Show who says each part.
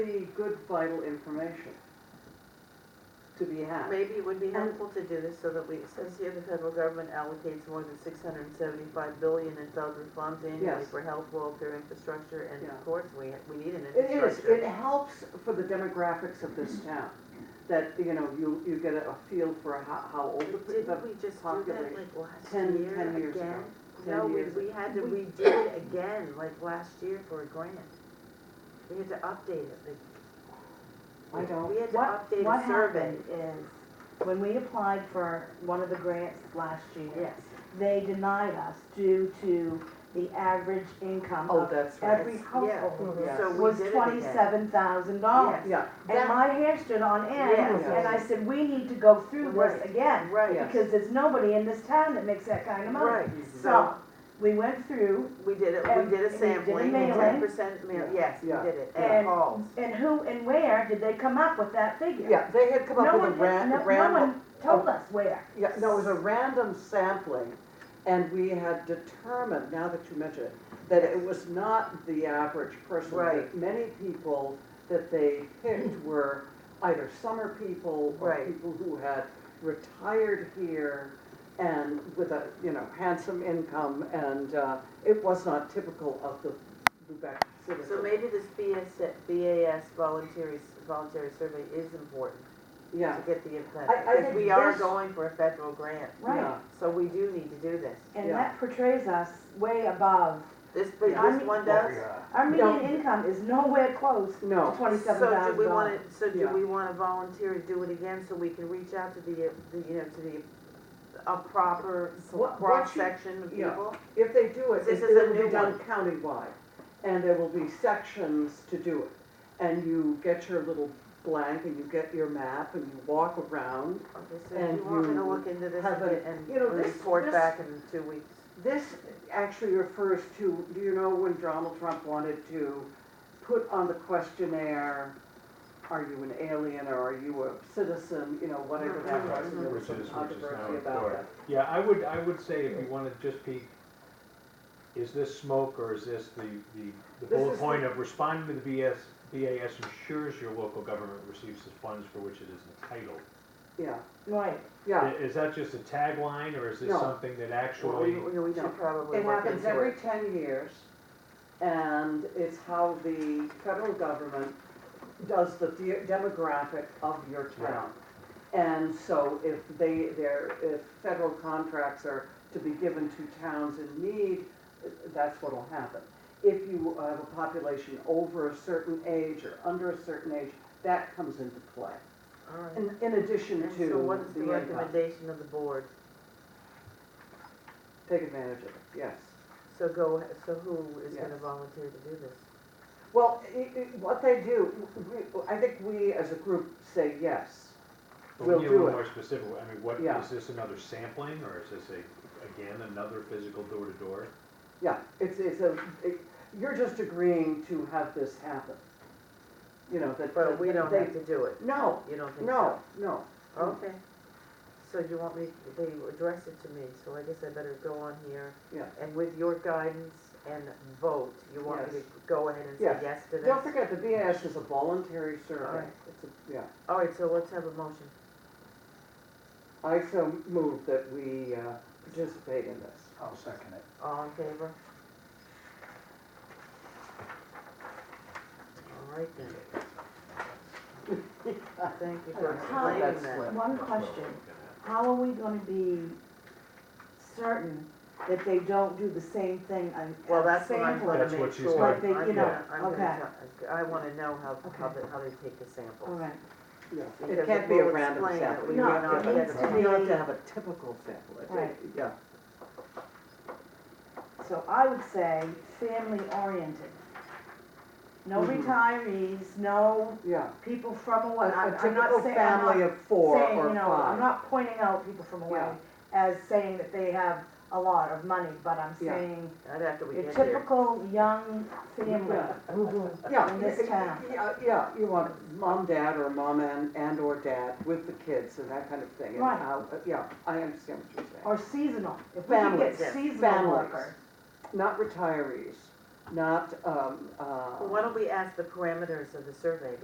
Speaker 1: pretty good vital information to be had.
Speaker 2: Maybe it would be helpful to do this so that we, it says here the federal government allocates more than six hundred and seventy-five billion in federal funds annually
Speaker 1: Yes.
Speaker 2: for health, welfare, infrastructure, and
Speaker 1: Yeah.
Speaker 2: of course, we, we need an
Speaker 1: It is, it
Speaker 2: infrastructure.
Speaker 1: helps for the demographics of this town, that, you know, you, you get a feel for how, how old the,
Speaker 2: Didn't
Speaker 1: the-
Speaker 2: we just do that
Speaker 1: population.
Speaker 2: like last
Speaker 1: 10 10
Speaker 2: year
Speaker 1: years ago.
Speaker 2: again?
Speaker 1: 10
Speaker 2: No, we,
Speaker 1: years
Speaker 2: we had to, we did it again, like last year for a grant. We had to update it, like,
Speaker 1: I don't,
Speaker 2: we had to
Speaker 3: What-
Speaker 2: update a survey.
Speaker 3: What happened is, when we applied for one of the grants last year,
Speaker 2: Yes,
Speaker 3: they denied us due to the average income
Speaker 1: oh,
Speaker 3: of
Speaker 1: that's right.
Speaker 3: every
Speaker 1: mhm.
Speaker 3: household
Speaker 1: Yes.
Speaker 2: so we
Speaker 3: was
Speaker 2: did it again.
Speaker 3: twenty-seven thousand dollars.
Speaker 1: Yeah,
Speaker 3: And my hair stood on end,
Speaker 2: Yes.
Speaker 3: and I said, we need to go through
Speaker 2: Right.
Speaker 3: this again,
Speaker 2: Right,
Speaker 1: Yes.
Speaker 3: because there's nobody in this town that makes that kind of money.
Speaker 2: right,
Speaker 1: Mhm.
Speaker 2: so.
Speaker 3: So, we went through,
Speaker 2: We did it,
Speaker 3: And-
Speaker 2: we did
Speaker 3: and we
Speaker 2: a
Speaker 3: did
Speaker 2: sampling,
Speaker 3: mailing.
Speaker 2: ten percent mail, yes, we
Speaker 1: Yeah,
Speaker 2: did it,
Speaker 3: yeah.
Speaker 2: and
Speaker 3: And-
Speaker 2: calls.
Speaker 3: and who and where did they come up with that figure?
Speaker 1: yeah, they had come
Speaker 3: No
Speaker 1: up with a
Speaker 3: one, had-
Speaker 1: ran,
Speaker 3: no,
Speaker 1: a
Speaker 3: no
Speaker 1: random,
Speaker 3: one told us where.
Speaker 1: Yeah, no, it was a random sampling, and we had determined, now that you mention it, that it was not the average person.
Speaker 2: Right.
Speaker 1: Many people that they picked were either summer people or
Speaker 2: Right.
Speaker 1: people who had retired here and with a, you know, handsome income, and uh, it was not typical of the Lubec citizen.
Speaker 2: So maybe this BS, BAS voluntary, voluntary survey is important
Speaker 1: Yeah,
Speaker 2: to get the input.
Speaker 1: I- I
Speaker 2: Because
Speaker 1: think
Speaker 2: we are
Speaker 1: this-
Speaker 2: going for a federal grant,
Speaker 3: Right,
Speaker 1: yeah.
Speaker 2: so we do need to do this.
Speaker 3: and
Speaker 1: Yeah.
Speaker 3: that portrays us way above.
Speaker 2: This, but
Speaker 1: Yeah.
Speaker 2: this one does.
Speaker 3: Our
Speaker 1: No.
Speaker 3: median income is nowhere close to
Speaker 1: No.
Speaker 3: twenty-seven
Speaker 2: So do
Speaker 3: thousand
Speaker 2: we wanna,
Speaker 3: dollars.
Speaker 2: so do
Speaker 1: Yeah.
Speaker 2: we wanna volunteer to do it again so we can reach out to the, uh, the, you know, to the, a proper
Speaker 1: What- what you-
Speaker 2: cross-section of
Speaker 1: yeah.
Speaker 2: people?
Speaker 1: If they do it,
Speaker 2: This
Speaker 1: it
Speaker 2: is a
Speaker 1: it will
Speaker 2: new
Speaker 1: be done countywide, and there will be sections to do it. And you get your little blank, and you get your map, and you walk around.
Speaker 2: Okay, so if
Speaker 1: And
Speaker 2: you want me to
Speaker 1: you
Speaker 2: look into this
Speaker 1: have a-
Speaker 2: and,
Speaker 1: you know,
Speaker 2: and
Speaker 1: this-
Speaker 2: report
Speaker 1: this-
Speaker 2: back in two weeks?
Speaker 1: This actually refers to, do you know when Donald Trump wanted to put on the questionnaire, are you an alien or are you a citizen, you know, whatever that
Speaker 2: Mhm.
Speaker 1: was, and there was some
Speaker 4: Which is- which is now
Speaker 1: controversy about
Speaker 4: required.
Speaker 1: that.
Speaker 4: Yeah, I would, I would say if you wanna just be, is this smoke or is this the, the, the
Speaker 1: This
Speaker 4: bullet
Speaker 1: is
Speaker 4: point of responding to the BS, BAS ensures your local government receives the funds for which it is entitled?
Speaker 1: Yeah,
Speaker 3: Right,
Speaker 1: yeah.
Speaker 4: I- Is that just a tagline or is this
Speaker 1: No.
Speaker 4: something that
Speaker 2: Well, we,
Speaker 4: actually,
Speaker 2: we- we
Speaker 1: No.
Speaker 2: should probably
Speaker 1: It
Speaker 2: look
Speaker 1: happens
Speaker 2: into
Speaker 1: every
Speaker 2: it.
Speaker 1: ten years, and it's how the federal government does the de- demographic of your town. And so if they, their, if federal contracts are to be given to towns in need, that's what'll happen. If you have a population over a certain age or under a certain age, that comes into play,
Speaker 2: All right.
Speaker 1: in, in addition
Speaker 2: And
Speaker 1: to
Speaker 2: so what is the
Speaker 1: the income.
Speaker 2: recommendation of the board?
Speaker 1: Take advantage of it, yes.
Speaker 2: So go, so who is gonna
Speaker 1: Yes.
Speaker 2: volunteer to do this?
Speaker 1: Well, i i what they do, we, I think we as a group say yes.
Speaker 4: but we
Speaker 1: We'll
Speaker 4: need a
Speaker 1: do
Speaker 4: little
Speaker 1: it.
Speaker 4: more specific, I mean, what,
Speaker 1: Yeah.
Speaker 4: is this another sampling or is this a, again, another physical door to door?
Speaker 1: Yeah, it's, it's a, it- you're just agreeing to have this happen. You know, that.
Speaker 2: But we
Speaker 1: that
Speaker 2: don't
Speaker 1: they-
Speaker 2: have to do it,
Speaker 1: No,
Speaker 2: you don't think
Speaker 1: no,
Speaker 2: so?
Speaker 1: no.
Speaker 2: Okay. So you want me, they address it to me, so I guess I better go on here.
Speaker 1: Yeah.
Speaker 2: And with your guidance and vote, you want me to
Speaker 1: Yes.
Speaker 2: go ahead and say
Speaker 1: Yes.
Speaker 2: yes to this?
Speaker 1: Don't forget, the BAS is a voluntary survey.
Speaker 2: Alright.
Speaker 1: It's a, yeah.
Speaker 2: All right, so let's have a motion.
Speaker 1: I so move that we uh, participate in this.
Speaker 5: I'll second it.
Speaker 2: All in favor? All right then. Thank you for
Speaker 1: How-
Speaker 2: explaining that.
Speaker 3: one question, how are we gonna be certain that they don't do the same thing on,
Speaker 2: Well,
Speaker 3: on
Speaker 2: that's what I'm
Speaker 3: sampling?
Speaker 2: gonna
Speaker 4: That's what
Speaker 2: make
Speaker 4: she's
Speaker 2: sure.
Speaker 4: gonna-
Speaker 3: Like they-
Speaker 2: I'm
Speaker 3: you know,
Speaker 2: gonna- I'm gonna
Speaker 3: okay.
Speaker 2: tell- I wanna know how, how
Speaker 3: Okay.
Speaker 2: they, how they take the samples.
Speaker 3: All right,
Speaker 1: Yeah.
Speaker 2: Because
Speaker 1: It can't
Speaker 2: it
Speaker 1: be a
Speaker 2: will
Speaker 1: random
Speaker 2: explain it.
Speaker 1: sample.
Speaker 2: We
Speaker 1: You
Speaker 3: may
Speaker 1: have
Speaker 3: not
Speaker 1: to-
Speaker 3: get it
Speaker 1: We have
Speaker 2: right.
Speaker 1: to have a typical sample. I think.
Speaker 3: Right.
Speaker 1: Yeah.
Speaker 3: so I would say family oriented. No
Speaker 2: Mm-hmm.
Speaker 1: Mhm.
Speaker 3: retirees, no
Speaker 1: Yeah.
Speaker 3: people from
Speaker 1: A
Speaker 3: away, I'm
Speaker 1: a
Speaker 3: I'm not
Speaker 1: typical
Speaker 3: saying, I'm not
Speaker 1: family of four
Speaker 3: saying,
Speaker 1: or
Speaker 3: you know, I'm
Speaker 1: five.
Speaker 3: not pointing out people from away
Speaker 1: Yeah.
Speaker 3: as saying that they have a lot of money, but I'm
Speaker 1: Yeah.
Speaker 3: saying
Speaker 2: Not after we
Speaker 3: your
Speaker 2: get here.
Speaker 3: typical young family.
Speaker 1: Yeah. Yeah,
Speaker 3: in this town.
Speaker 1: yeah, yeah, you want mom, dad, or mom and, and or dad with the kids and that kind of thing. and
Speaker 3: Right.
Speaker 1: how- uh, Yeah, I understand what you're saying.
Speaker 3: Or seasonal, if we can get
Speaker 1: Families,
Speaker 3: seasonal
Speaker 1: families.
Speaker 3: workers.
Speaker 1: Not um, uh, retirees. not, um, uh.
Speaker 2: Well, why don't we ask the parameters of the survey?